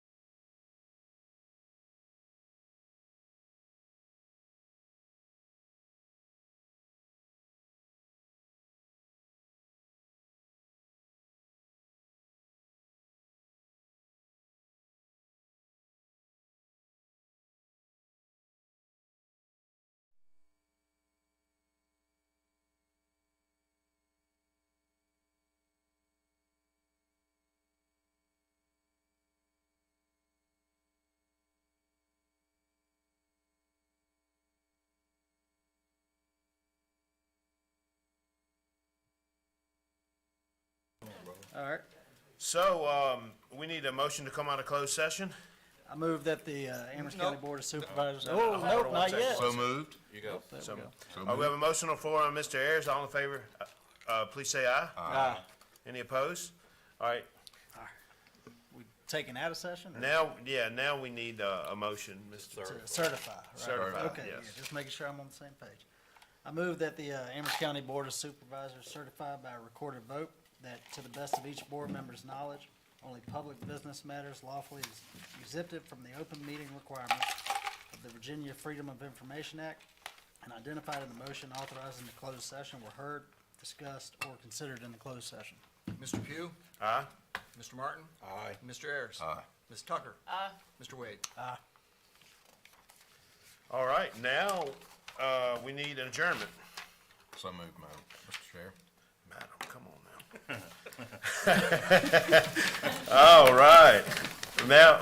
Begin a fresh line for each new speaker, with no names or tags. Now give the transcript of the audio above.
All right.
So, um, we need a motion to come out of closed session?
I move that the uh, Amherst County
Nope.
Board of Supervisors.
No, no, no,
Oh,
no,
nope,
one
not
second.
yet.
So moved?
You go.
There we
So,
go.
So
uh, we have
moved?
a motion on the floor on Mr. Ayers, all in favor, uh, uh, please say aye.
Ah,
Any opposed? All right,
we taken out of session or
now, yeah, now we need, uh, a motion, Mr.
to certify? right?
Certify,
Okay, yeah,
yes.
just making sure I'm on the same page. I move that the uh, Amherst County Board of Supervisors certify by recorded vote that to the best of each board member's knowledge, only public business matters lawfully ex- exempted from the open meeting requirements of the Virginia Freedom of Information Act and identified in the motion authorizing the closed session were heard, discussed, or considered in the closed session.
Mr. Pugh?
Aye?
Mr. Martin? Aye. Mr. Ayers?
Aye.
Ms. Tucker? Aye. Mr. Wade?
All right, now, uh, we need an adjournment.
So moved, Madam, Mr. Chair.
Madam, come on now. All right, now,